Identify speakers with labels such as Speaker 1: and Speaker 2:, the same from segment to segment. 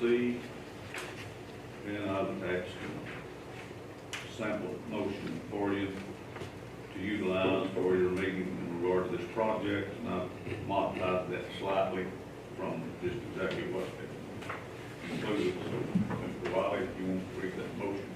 Speaker 1: C, and I would ask sample motion for you to utilize for your meeting in regard to this project, and I've modified that slightly from just exactly what it included. So, Mr. Wiley, if you want to read that motion.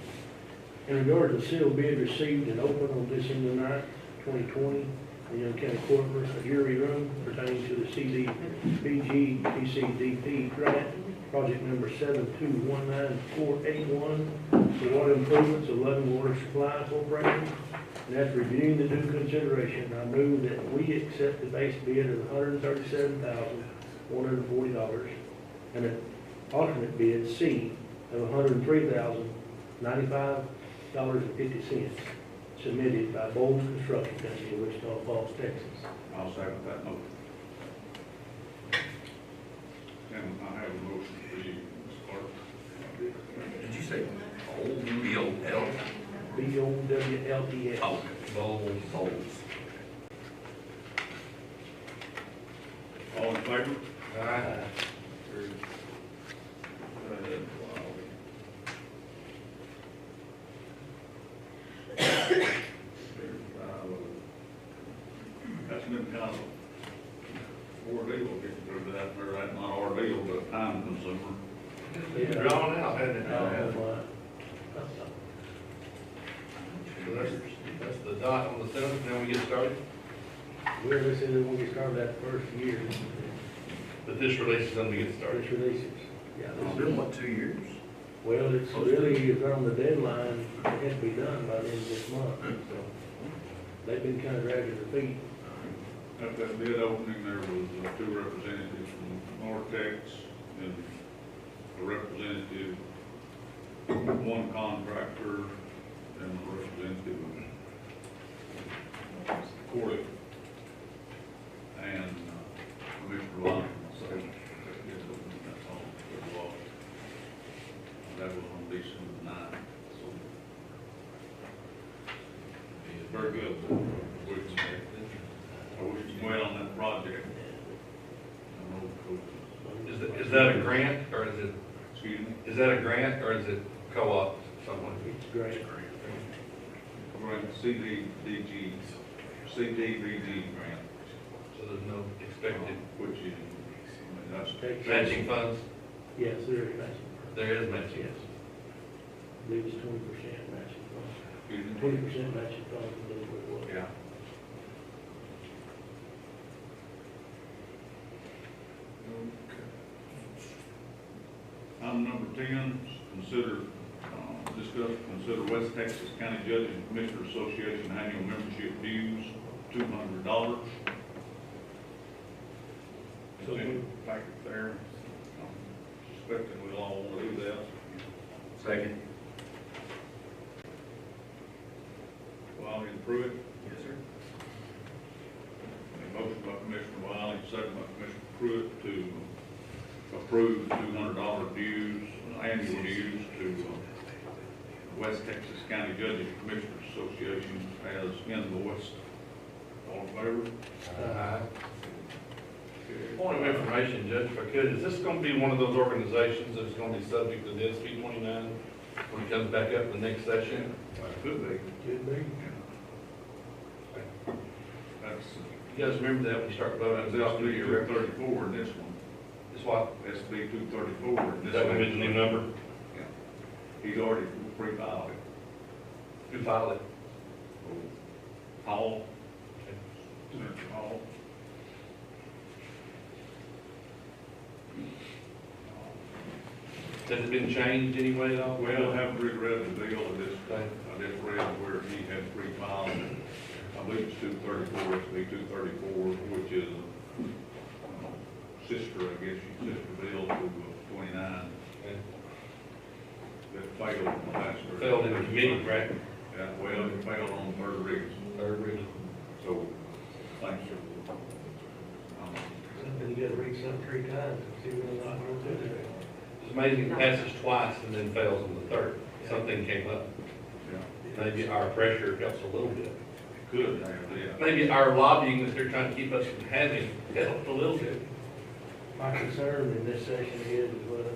Speaker 2: In regard to the sealed bid received and opened on December ninth, twenty twenty, in Young County Courtroom, a jury room pertaining to the CDBG PCDP grant, project number seven two one nine four eight one, for water improvements of Leaven Water Supply Corporation. And after reviewing the due consideration, I move that we accept the base bid of hundred and thirty-seven thousand, one hundred and forty dollars, and an alternate bid C of $103,095 dollars and fifty cents submitted by Bowles Construction Company of Wichita Falls, Texas.
Speaker 1: I'll second that motion. And I have a motion for you, Mr. Clark.
Speaker 3: Did you say old B O L?
Speaker 2: B O W L E S.
Speaker 3: Oh, bowls, bowls.
Speaker 1: All in favor?
Speaker 2: Aye.
Speaker 1: That's been kind of ordeal getting through that, or that not ordeal, but time consumer.
Speaker 2: Yeah.
Speaker 4: Drawn out, hadn't it?
Speaker 2: Uh, why?
Speaker 4: So that's, that's the dot on the seventh, now we get started,
Speaker 2: We're listening when we started that first year,
Speaker 4: but this release is when we get started. Oh,
Speaker 2: first releases. Yeah,
Speaker 3: It's
Speaker 2: this is-
Speaker 3: been what, two years?
Speaker 2: well, it's really around the deadline, it has to be done by the end of this month, so they've been kind of dragging their feet.
Speaker 1: At that bid opening, there was uh, two representatives from Nortex and a representative, one contractor and a representative of Corley. And uh, Commissioner Lyon, so that bid opening, that's all that was. That was on December ninth, so. Very good. We expect I wish you well on that project. I don't know if it
Speaker 4: Is, that- is that a grant, or is it,
Speaker 1: was- Excuse me,
Speaker 4: is that a grant, or is it co-op, someone?
Speaker 2: It's great.
Speaker 1: we're at CDBG, CDBG grant,
Speaker 4: So there's no
Speaker 2: Oh.
Speaker 4: expected
Speaker 1: which is, I mean, that's,
Speaker 2: Texas.
Speaker 4: matching funds?
Speaker 2: Yes, there is matching.
Speaker 4: There is matching.
Speaker 2: Yes. I believe it's twenty percent matching fund,
Speaker 1: excuse me.
Speaker 2: twenty percent matching fund, I believe it was.
Speaker 1: Yeah. Item number ten, consider, uh, discuss, consider West Texas County Judges and Commissioners Association annual membership dues, two hundred dollars. It's in the packet there, I'm suspecting we'll all want to do that.
Speaker 3: Second.
Speaker 1: Wiley and Pruitt,
Speaker 3: Yes, sir.
Speaker 1: A Motion by Commissioner Wiley, second by Commissioner Pruitt to approve two hundred dollar dues, annual dues to uh, West Texas County Judges and Commissioners Association as invoiced. All in favor?
Speaker 4: Aye. Uh, Point of information, Judge, if I could, is this gonna be one of those organizations that's gonna be subject to the SB twenty-nine when it comes back up in the next session?
Speaker 1: That could be.
Speaker 2: Could be.
Speaker 1: That's,
Speaker 4: You guys remember that when you start voting?
Speaker 1: that's SB two thirty-four in this one,
Speaker 4: It's what?
Speaker 1: SB two thirty-four in
Speaker 4: Is
Speaker 1: this
Speaker 4: that gonna be the new
Speaker 1: one.
Speaker 4: number?
Speaker 1: He's already pre-filed it.
Speaker 4: Who filed it?
Speaker 1: Hall. Senator Hall.
Speaker 4: Has it been changed anyway at all?
Speaker 1: Well, I haven't reread the deal, I just,
Speaker 4: Okay.
Speaker 1: I just read where he had pre-filed, I believe it's two thirty-four, it's B two thirty-four, which is, uh, sister, I guess, you sister bill to twenty-nine,
Speaker 4: Okay.
Speaker 1: that failed on the last. third.
Speaker 4: Failed in the committee, right?
Speaker 1: Yeah, well, it failed on the third reading,
Speaker 4: Third reading.
Speaker 1: so, thanks, sir. Um,
Speaker 2: Something you gotta read something three times, and see whether or not you're gonna do it.
Speaker 4: It's amazing, it passes twice and then fails on the third. Something came up.
Speaker 1: Yeah,
Speaker 4: Maybe our pressure helps a little bit.
Speaker 1: it could have, yeah.
Speaker 4: Maybe our lobbying that they're trying to keep us from having helped a little bit.
Speaker 2: My concern in this session is, is whether or